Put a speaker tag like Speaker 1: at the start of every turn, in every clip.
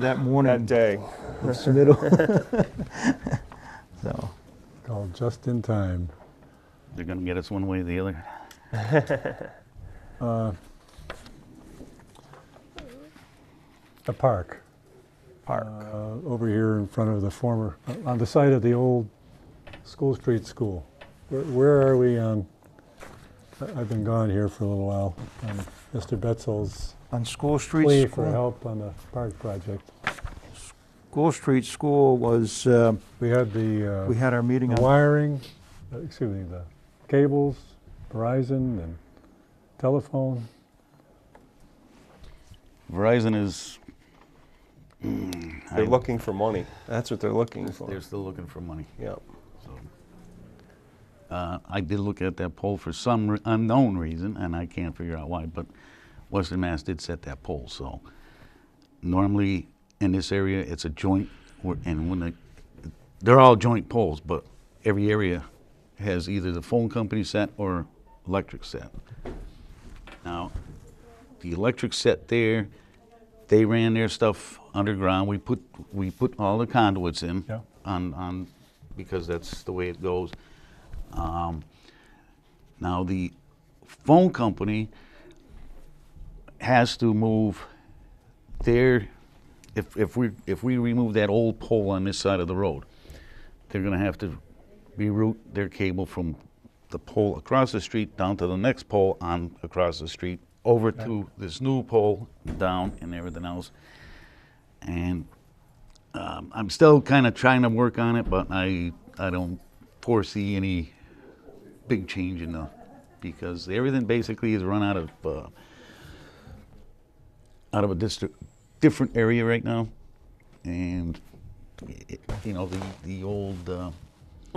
Speaker 1: that morning
Speaker 2: that day.
Speaker 1: of submittal. So,
Speaker 3: All just in time.
Speaker 4: They're going to get us one way or the other.
Speaker 3: The park,
Speaker 1: park,
Speaker 3: uh, over here in front of the former, uh, on the site of the old School Street School. Where- Where are we on, I- I've been gone here for a little while, on Mr. Betzel's
Speaker 1: on School
Speaker 3: plea
Speaker 1: Street,
Speaker 3: for
Speaker 1: School
Speaker 3: help on the park project.
Speaker 1: School Street School was, uh,
Speaker 3: We had the
Speaker 1: we
Speaker 3: uh,
Speaker 1: had our meeting
Speaker 3: the
Speaker 1: on
Speaker 3: wiring, uh, excuse me, the cables, Verizon and telephone.
Speaker 4: Verizon is.
Speaker 2: They're
Speaker 4: I-
Speaker 2: looking for money. That's what they're looking for.
Speaker 4: They're still looking for money.
Speaker 2: Yep.
Speaker 4: So, uh, I did look at that poll for some re- unknown reason, and I can't figure out why, but Western Mass did set that poll, so normally in this area, it's a joint, wor- and when they, they're all joint polls, but every area has either the phone company set or electric set. Now, the electric set there, they ran their stuff underground. We put, we put all the conduits in
Speaker 3: Yeah.
Speaker 4: on, on, because that's the way it goes. Um, Now, the phone company has to move their, if, if we, if we remove that old pole on this side of the road, they're gonna have to reroute their cable from the pole across the street down to the next pole on, across the street, over to this new pole down and everything else. And um, I'm still kind of trying to work on it, but I, I don't foresee any big change in the, because everything basically is run out of, uh, out of a district, different area right now. And, it, you know, the, the old, uh,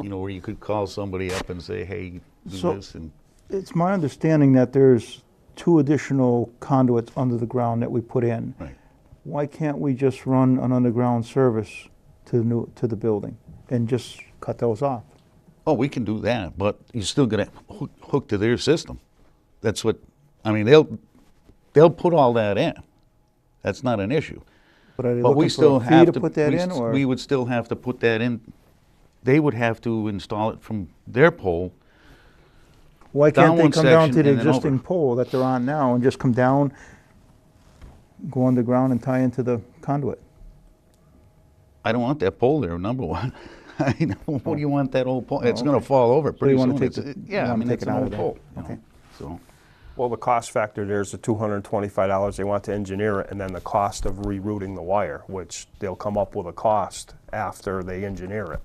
Speaker 4: you know, where you could call somebody up and say, hey, do
Speaker 1: So-
Speaker 4: this and.
Speaker 1: It's my understanding that there's two additional conduits under the ground that we put in.
Speaker 4: Right.
Speaker 1: Why can't we just run an underground service to the new, to the building and just cut those off?
Speaker 4: Oh, we can do that, but you're still gonna hook, hook to their system. That's what, I mean, they'll, they'll put all that in. That's not an issue.
Speaker 1: But are they
Speaker 4: But we
Speaker 1: looking
Speaker 4: still
Speaker 1: for a fee
Speaker 4: have
Speaker 1: to
Speaker 4: to.
Speaker 1: put that
Speaker 4: we
Speaker 1: in
Speaker 4: s-
Speaker 1: or?
Speaker 4: We would still have to put that in. They would have to install it from their pole.
Speaker 1: Why
Speaker 4: down
Speaker 1: can't they
Speaker 4: one
Speaker 1: come down
Speaker 4: section
Speaker 1: to the
Speaker 4: and then over.
Speaker 1: existing pole that they're on now and just come down, go underground and tie into the conduit?
Speaker 4: I don't want that pole there, number one. I know, What do you want that old pole? It's
Speaker 1: Oh,
Speaker 4: gonna
Speaker 1: okay.
Speaker 4: fall over pretty
Speaker 1: you wanna
Speaker 4: soon.
Speaker 1: take
Speaker 4: It's-
Speaker 1: the- you
Speaker 4: Yeah, I
Speaker 1: wanna
Speaker 4: mean,
Speaker 1: take
Speaker 4: it's
Speaker 1: it
Speaker 4: an
Speaker 1: out of
Speaker 4: old
Speaker 1: there.
Speaker 4: pole. you know,
Speaker 1: Okay.
Speaker 4: So,
Speaker 2: Well, the cost factor there's the $225 they want to engineer it, and then the cost of rerouting the wire, which they'll come up with a cost after they engineer it.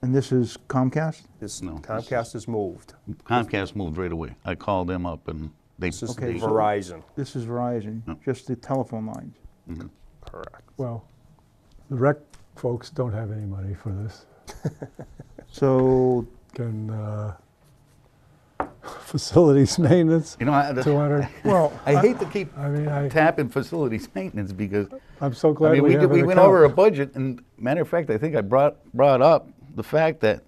Speaker 1: And this is Comcast?
Speaker 2: This
Speaker 4: No, this
Speaker 2: Comcast has moved.
Speaker 4: Comcast moved right away. I called them up and they.
Speaker 2: This is
Speaker 1: Okay,
Speaker 4: they-
Speaker 1: so-
Speaker 2: Verizon,
Speaker 1: This is Verizon,
Speaker 4: No.
Speaker 1: just the telephone lines.
Speaker 2: correct.
Speaker 3: Well, the rec folks don't have any money for this.
Speaker 1: So
Speaker 3: Can, uh, facilities maintenance,
Speaker 4: You know, I,
Speaker 2: uh,
Speaker 3: 200.
Speaker 1: Well,
Speaker 4: I hate to keep
Speaker 3: I mean, I,
Speaker 4: tapping facilities maintenance because,
Speaker 3: I'm so
Speaker 4: I
Speaker 3: glad
Speaker 4: mean,
Speaker 3: we
Speaker 4: we,
Speaker 3: have
Speaker 4: did- we
Speaker 3: an
Speaker 4: went over a
Speaker 3: account.
Speaker 4: budget, and matter of fact, I think I brought, brought up the fact that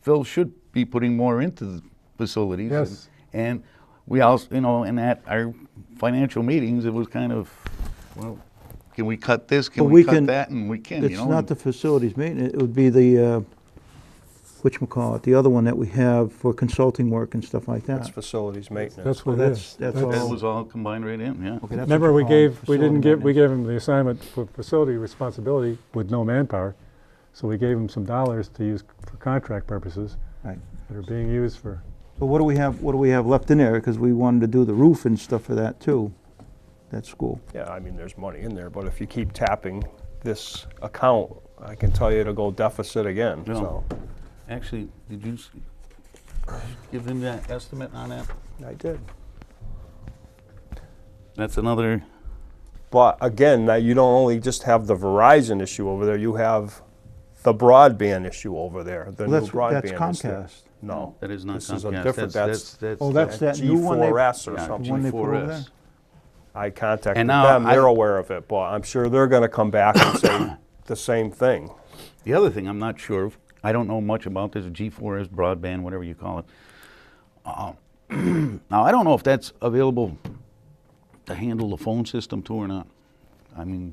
Speaker 4: Phil should be putting more into the facilities. and-
Speaker 3: Yes.
Speaker 4: And we also, you know, and at our financial meetings, it was kind of, well, can we cut this, can
Speaker 1: But
Speaker 4: we
Speaker 1: we
Speaker 4: cut
Speaker 1: can-
Speaker 4: that, and we can, you
Speaker 1: it's
Speaker 4: know?
Speaker 1: not
Speaker 4: and-
Speaker 1: the facilities maintenance, it would be the, uh, whatchamacallit, the other one that we have for consulting work and stuff like
Speaker 2: That's
Speaker 1: that.
Speaker 2: facilities maintenance.
Speaker 3: That's what
Speaker 1: Well,
Speaker 3: it
Speaker 1: that's-
Speaker 3: is.
Speaker 1: that's
Speaker 4: That
Speaker 1: all-
Speaker 4: was all combined right in, yeah.
Speaker 1: Okay, that's what
Speaker 3: Remember,
Speaker 1: you're
Speaker 3: we
Speaker 1: calling
Speaker 3: gave, we
Speaker 1: facility
Speaker 3: didn't give, we
Speaker 1: maintenance.
Speaker 3: gave them the assignment for facility responsibility with no manpower. So we gave them some dollars to use for contract purposes
Speaker 1: Right.
Speaker 3: that are being used for,
Speaker 1: So what do we have, what do we have left in there? Because we wanted to do the roof and stuff for that too, that school.
Speaker 2: Yeah, I mean, there's money in there, but if you keep tapping this account, I can tell you it'll go deficit again,
Speaker 4: No.
Speaker 2: so.
Speaker 4: Actually, did you s- give them that estimate on that?
Speaker 2: I did.
Speaker 4: That's another,
Speaker 2: But again, now you don't only just have the Verizon issue over there, you have the broadband issue over there, the
Speaker 1: Well,
Speaker 2: new
Speaker 1: that's- that's
Speaker 2: broadband issue.
Speaker 1: Comcast.
Speaker 2: No.
Speaker 4: that is not
Speaker 2: This is a
Speaker 4: Comcast, that's,
Speaker 2: different,
Speaker 4: that's,
Speaker 2: that's
Speaker 4: that's.
Speaker 1: Oh,
Speaker 4: the-
Speaker 1: that's that new one they-
Speaker 2: G4S or
Speaker 4: yeah,
Speaker 2: something.
Speaker 1: one they put over there?
Speaker 4: G4S.
Speaker 2: I contacted
Speaker 4: And now
Speaker 2: them, they're
Speaker 4: I-
Speaker 2: aware of it, but I'm sure they're gonna come back and say the same thing.
Speaker 4: The other thing I'm not sure of, I don't know much about this G4S broadband, whatever you call it. Um, Uh, now, I don't know if that's available to handle the phone system too or not. I mean,